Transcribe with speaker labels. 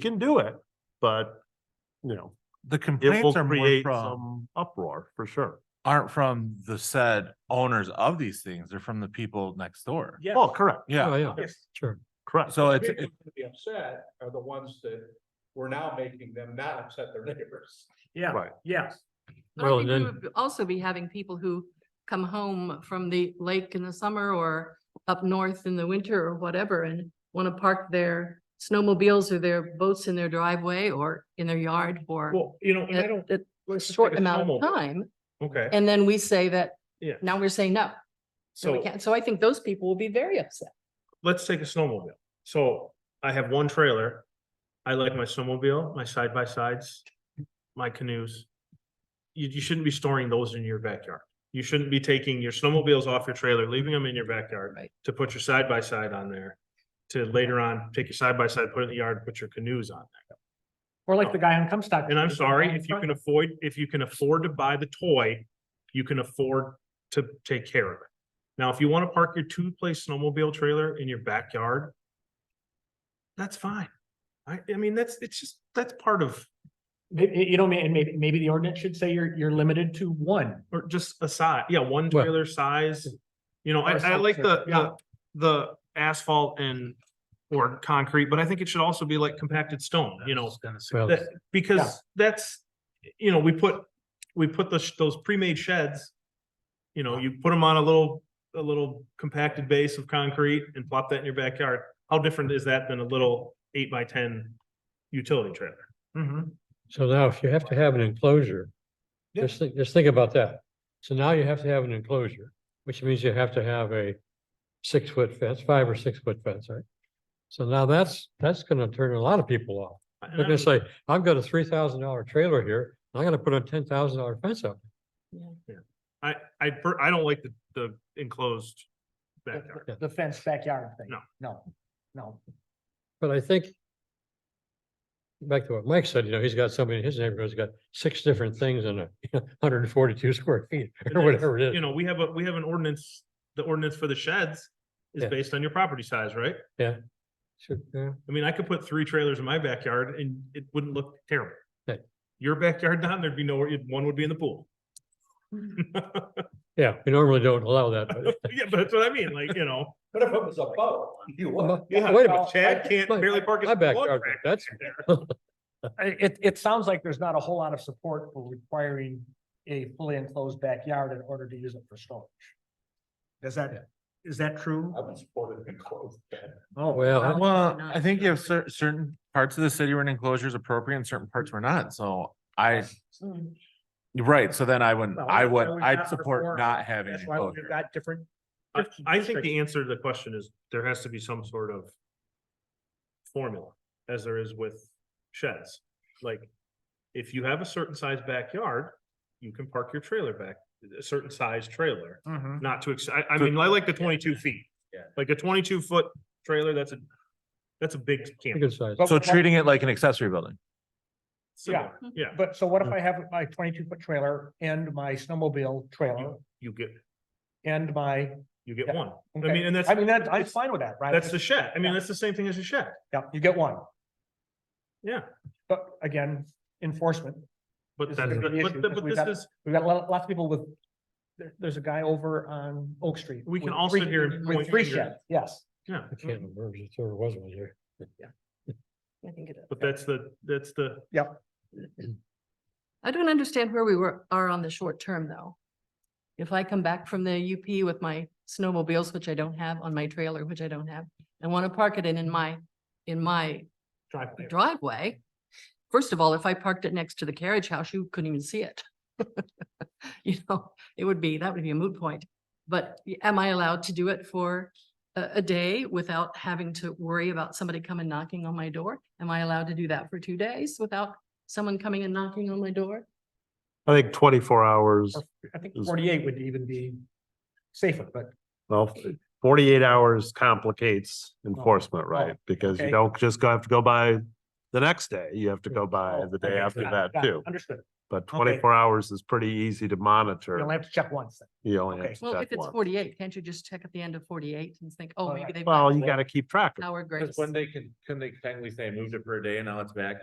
Speaker 1: can do it, but, you know,
Speaker 2: The
Speaker 1: it will
Speaker 2: complaints are more
Speaker 1: create
Speaker 2: from,
Speaker 1: some uproar for sure.
Speaker 2: aren't from the said owners of these things, they're from the people next door.
Speaker 3: Yeah.
Speaker 1: Oh, correct,
Speaker 2: Yeah,
Speaker 4: Oh, yeah,
Speaker 3: Yes.
Speaker 4: sure.
Speaker 1: correct.
Speaker 2: so it's,
Speaker 3: People
Speaker 2: it-
Speaker 3: to be upset are the ones that we're now making them not upset their neighbors. Yeah,
Speaker 1: Right.
Speaker 3: yes.
Speaker 5: I
Speaker 4: Well,
Speaker 5: think we
Speaker 4: then-
Speaker 5: would also be having people who come home from the lake in the summer or up north in the winter or whatever and want to park their snowmobiles or their boats in their driveway or in their yard for
Speaker 3: Well, you know, and I
Speaker 5: a
Speaker 3: don't.
Speaker 5: a
Speaker 3: let's just
Speaker 5: short
Speaker 3: take a
Speaker 5: amount of
Speaker 3: snowmobile.
Speaker 5: time.
Speaker 3: Okay,
Speaker 5: And then we say that,
Speaker 3: Yeah.
Speaker 5: now we're saying no, so we
Speaker 3: so
Speaker 5: can't. So I think those people will be very upset.
Speaker 3: let's take a snowmobile. So I have one trailer. I like my snowmobile, my side by sides, my canoes. You, you shouldn't be storing those in your backyard. You shouldn't be taking your snowmobiles off your trailer, leaving them in your backyard.
Speaker 5: Right.
Speaker 3: To put your side by side on there, to later on, take your side by side, put it in the yard, put your canoes on.
Speaker 6: Or like the guy on Comstock.
Speaker 3: And I'm sorry, if you can afford, if you can afford to buy the toy, you can afford to take care of it. Now, if you want to park your two-place snowmobile trailer in your backyard, that's fine. I, I mean, that's, it's just, that's part of,
Speaker 6: Maybe, you know, may- and maybe, maybe the ordinance should say you're, you're limited to one.
Speaker 3: or just a size, yeah, one
Speaker 4: Well-
Speaker 3: trailer size. You know, I,
Speaker 6: Or
Speaker 3: I like the,
Speaker 6: something, yeah.
Speaker 3: the, the asphalt and, or concrete, but I think it should also be like compacted stone, you know?
Speaker 4: Well,
Speaker 3: That, because that's, you know, we put, we put those, those pre-made sheds. You know, you put them on a little, a little compacted base of concrete and plop that in your backyard. How different is that than a little eight by ten utility trailer?
Speaker 4: so now if you have to have an enclosure,
Speaker 3: Yeah.
Speaker 4: just think, just think about that. So now you have to have an enclosure, which means you have to have a six foot fence, five or six foot fence, right? So now that's, that's gonna turn a lot of people off.
Speaker 3: And
Speaker 4: They're
Speaker 3: I
Speaker 4: gonna
Speaker 3: would-
Speaker 4: say, I've got a three thousand dollar trailer here, and I'm gonna put a ten thousand dollar fence up.
Speaker 3: I, I, per- I don't like the, the enclosed
Speaker 6: The-
Speaker 3: backyard.
Speaker 6: The fence backyard thing.
Speaker 3: No.
Speaker 6: No, no.
Speaker 4: But I think back to what Mike said, you know, he's got somebody in his neighborhood's got six different things in a hundred and forty-two square feet
Speaker 3: And
Speaker 4: or
Speaker 3: that's,
Speaker 4: whatever it
Speaker 3: You
Speaker 4: is.
Speaker 3: know, we have a, we have an ordinance, the ordinance for the sheds is
Speaker 4: Yeah.
Speaker 3: based on your property size, right?
Speaker 4: Should- yeah.
Speaker 3: I mean, I could put three trailers in my backyard and it wouldn't look terrible.
Speaker 4: Right.
Speaker 3: Your backyard, Don, there'd be nowhere, you'd- one would be in the pool. Yeah,
Speaker 4: Yeah, we normally don't allow that, but
Speaker 3: but that's what I mean, like, you know,
Speaker 6: What if it was a boat?
Speaker 4: Well,
Speaker 3: Yeah,
Speaker 4: Uh-huh. Wait a minute,
Speaker 6: well,
Speaker 3: Chad can't
Speaker 4: my-
Speaker 3: barely park his.
Speaker 4: my
Speaker 3: log
Speaker 4: backyard,
Speaker 3: tractor
Speaker 4: that's-
Speaker 3: in there.
Speaker 6: It, it sounds like there's not a whole lot of support for requiring a fully enclosed backyard in order to use it for storage. Is that, is that true?
Speaker 3: I would support it enclosed.
Speaker 6: Oh,
Speaker 4: well, I-
Speaker 2: well,
Speaker 5: not.
Speaker 2: I think you have cer- certain parts of the city where an enclosure is appropriate and certain parts were not, so I,
Speaker 5: Hmm,
Speaker 2: you're right, so then I wouldn't,
Speaker 6: Well,
Speaker 2: I
Speaker 6: that's
Speaker 2: would,
Speaker 6: why we've
Speaker 2: I'd
Speaker 6: got
Speaker 2: support
Speaker 6: reform.
Speaker 2: not having
Speaker 6: That's why
Speaker 2: enclosure.
Speaker 6: we've got different.
Speaker 3: I, I think the answer to the question is there has to be some sort of formula as there is with sheds. Like, if you have a certain size backyard, you can park your trailer back, a certain size trailer.
Speaker 6: Mhm.
Speaker 3: not to, ex- I, I mean, I like the twenty-two feet.
Speaker 6: Yeah.
Speaker 3: Like a twenty-two foot trailer, that's a, that's a big camper.
Speaker 4: good size.
Speaker 6: But
Speaker 2: So
Speaker 6: what-
Speaker 2: treating it like an accessory building.
Speaker 3: Similar,
Speaker 6: Mm-hmm.
Speaker 3: Yeah,
Speaker 6: But so what if I have my twenty-two foot trailer and my snowmobile trailer
Speaker 3: you get,
Speaker 6: and my
Speaker 3: you get
Speaker 6: Yeah.
Speaker 3: one. I
Speaker 6: Okay.
Speaker 3: mean, and that's,
Speaker 6: I mean, that, I'm
Speaker 3: it's-
Speaker 6: fine with that, right?
Speaker 3: that's the shed. I mean,
Speaker 6: Yeah.
Speaker 3: that's the same thing as a shed.
Speaker 6: Yeah, you get one,
Speaker 3: Yeah,
Speaker 6: but again, enforcement,
Speaker 3: but
Speaker 6: This
Speaker 3: that,
Speaker 6: is
Speaker 3: but,
Speaker 6: the issue,
Speaker 3: but-
Speaker 6: because
Speaker 3: but
Speaker 6: we've
Speaker 3: this
Speaker 6: got-
Speaker 3: is,
Speaker 6: we've got a lot, lots of people with. There, there's a guy over on Oak Street.
Speaker 3: We can
Speaker 6: with
Speaker 3: all
Speaker 6: three-
Speaker 3: sit here and
Speaker 6: With
Speaker 3: point
Speaker 6: three
Speaker 3: fingers.
Speaker 6: sheds, yes,
Speaker 3: yeah, Mm-hmm.
Speaker 4: I can't remember if there was one here.
Speaker 5: I think it is.
Speaker 3: but that's the, that's the,
Speaker 5: I don't understand where we were, are on the short term, though. If I come back from the UP with my snowmobiles, which I don't have, on my trailer, which I don't have, and want to park it in, in my, in my
Speaker 3: driveway.
Speaker 5: driveway. First of all, if I parked it next to the carriage house, you couldn't even see it. You know, it would be, that would be a moot point. But y- am I allowed to do it for a, a day without having to worry about somebody coming knocking on my door? Am I allowed to do that for two days without someone coming and knocking on my door?
Speaker 1: I think twenty-four hours,
Speaker 6: I think
Speaker 1: Is-
Speaker 6: forty-eight would even be safer, but.
Speaker 1: well, forty-eight hours complicates enforcement, right? Because you
Speaker 6: Oh. okay.
Speaker 1: don't just go have to go by the next day, you have to go by
Speaker 6: Oh,
Speaker 1: the
Speaker 6: okay,
Speaker 1: day after
Speaker 6: got it,
Speaker 1: that
Speaker 6: got it,
Speaker 1: too.
Speaker 6: Understood,
Speaker 3: but twenty-four hours is pretty easy to
Speaker 1: You'll
Speaker 3: monitor.
Speaker 1: have to check once. then.
Speaker 3: You only
Speaker 1: okay.
Speaker 3: have to
Speaker 5: Well,
Speaker 3: check
Speaker 5: if it's
Speaker 3: one.
Speaker 5: forty-eight, can't you just check at the end of forty-eight and think, oh,
Speaker 1: All
Speaker 5: maybe
Speaker 1: right.
Speaker 5: they've. got
Speaker 3: Well, you gotta keep track of it.
Speaker 5: Hour grace.
Speaker 6: Cause when they can, can they technically say I moved it per day and now it's back